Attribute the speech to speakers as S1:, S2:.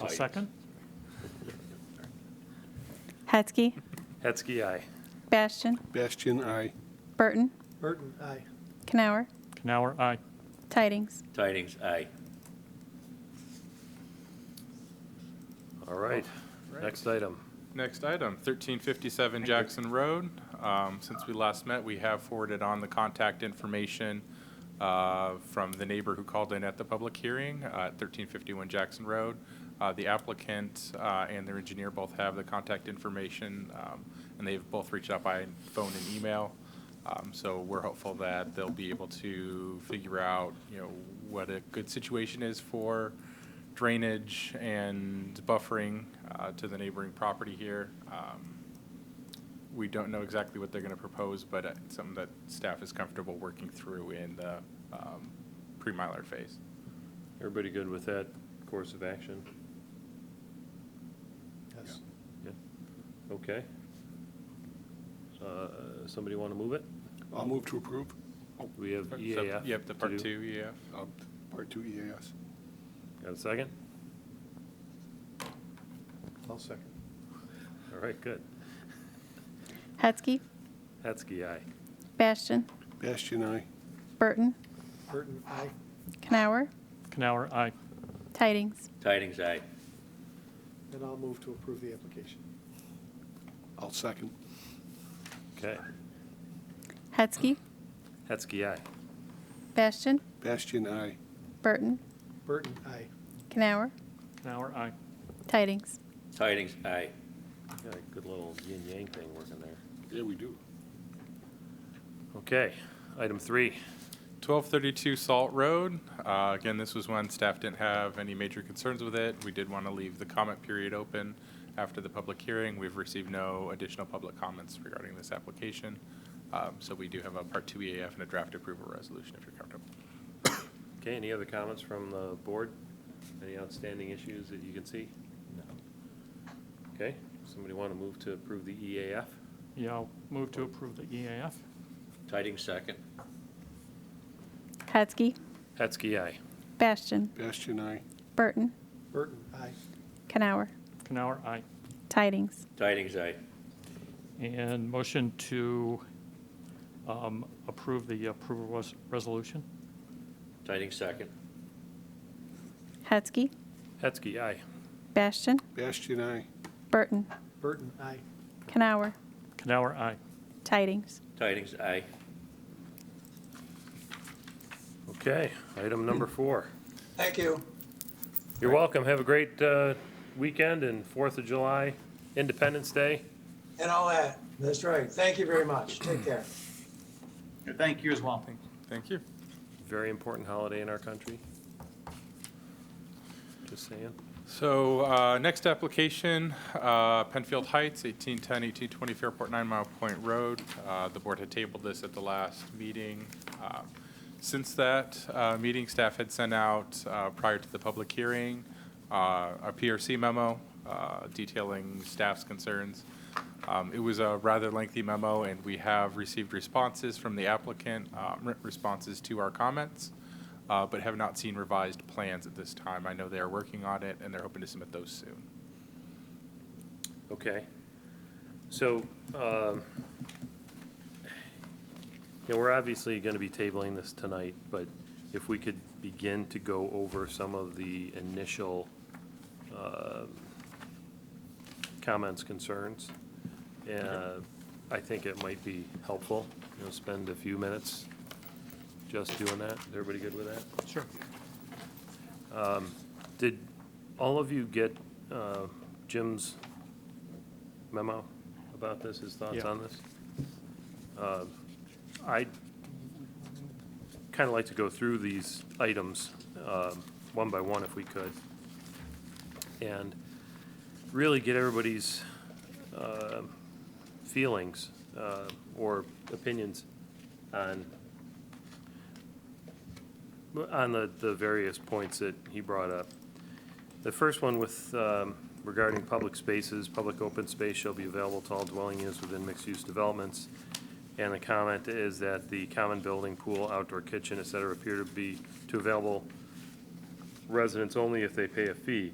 S1: I'll
S2: Aye.
S1: second.
S3: Hetzke,
S1: Hetzke, aye.
S3: Bastian,
S4: Bastian, aye.
S3: Burton,
S5: Burton, aye.
S3: Canower,
S1: Canower, aye.
S3: Tidings.
S2: Tidings, aye.
S1: All right, next item.
S6: Next item, 1357 Jackson Road. Um, Since we last met, we have forwarded on the contact information uh, from the neighbor who called in at the public hearing uh, at 1351 Jackson Road. Uh, The applicant uh, and their engineer both have the contact information, um, and they've both reached out by phone and email. Um, So we're hopeful that they'll be able to figure out, you know, what a good situation is for drainage and buffering uh, to the neighboring property here. Um, We don't know exactly what they're going to propose, but it's something that staff is comfortable working through in the um, pre-miler phase.
S1: Everybody good with that course of action?
S5: Yes.
S1: Yeah. Okay. Uh, Somebody want to move it?
S4: I'll move to approve.
S1: We have E
S6: Sub-
S1: EAF.
S6: Yep, the
S1: to
S6: part
S1: do.
S6: two E EAF.
S4: Uh, Part two EAS.
S1: Got a second?
S5: I'll second.
S1: All right, good.
S3: Hetzke,
S1: Hetzke, aye.
S3: Bastian,
S4: Bastian, aye.
S3: Burton,
S5: Burton, aye.
S3: Canower,
S1: Canower, aye.
S3: Tidings.
S2: Tidings, aye.
S5: And I'll move to approve the application.
S4: I'll second.
S1: Okay.
S3: Hetzke,
S1: Hetzke, aye.
S3: Bastian,
S4: Bastian, aye.
S3: Burton,
S5: Burton, aye.
S3: Canower,
S1: Canower, aye.
S3: Tidings.
S2: Tidings, aye.
S1: Got a good little yin-yang thing working there.
S4: Yeah, we do.
S1: Okay, item three.
S6: 1232 Salt Road. Uh, Again, this was when staff didn't have any major concerns with it. We did want to leave the comment period open after the public hearing. We've received no additional public comments regarding this application. Um, So we do have a Part 2 EAF and a draft approval resolution if you're comfortable.
S1: Okay, any other comments from the board? Any outstanding issues that you can see? No. Okay, somebody want to move to approve the E EAF?
S7: Yeah, I'll move to approve the E EAF.
S2: Tidings, second.
S3: Hetzke,
S1: Hetzke, aye.
S3: Bastian,
S4: Bastian, aye.
S3: Burton,
S5: Burton, aye.
S3: Canower,
S7: Canower, aye.
S3: Tidings.
S2: Tidings, aye.
S7: And motion to um, approve the approval res- resolution.
S2: Tidings, second.
S3: Hetzke,
S1: Hetzke, aye.
S3: Bastian,
S4: Bastian, aye.
S3: Burton,
S5: Burton, aye.
S3: Canower,
S7: Canower, aye.
S3: Tidings.
S2: Tidings, aye.
S1: Okay, item number four.
S8: Thank you.
S1: You're welcome. Have a great uh, weekend and Fourth of July, Independence Day.
S8: And all that. That's right. Thank you very much. Take care.
S6: Thank you as well. Thank you.
S1: Very important holiday in our country. Just saying.
S6: So uh, next application, uh, Penfield Heights, 1810, 1820 Fairport Nine Mile Point Road. Uh, The board had tabled this at the last meeting. Um, Since that uh, meeting, staff had sent out, uh, prior to the public hearing, uh, a PRC memo uh, detailing staff's concerns. Um, It was a rather lengthy memo, and we have received responses from the applicant, uh, re- responses to our comments uh, but have not seen revised plans at this time. I know they are working on it, and they're hoping to submit those soon.
S1: Okay. So, um, you know, we're obviously going to be tabling this tonight, but if we could begin to go over some of the initial um, comments, concerns, uh, I think it might be helpful, you know, spend a few minutes just doing that. Is everybody good with that?
S7: Sure.
S1: Did all of you get uh, Jim's memo about this, his thoughts
S7: Yeah.
S1: on this? Uh, I'd kind of like to go through these items um, one by one if we could, and really get everybody's um, feelings uh, or opinions on on the, the various points that he brought up. The first one with, um, regarding public spaces, public open space shall be available to all dwelling units within mixed-use developments. And the comment is that the common building, pool, outdoor kitchen, et cetera, appear to be, to available residents only if they pay a fee.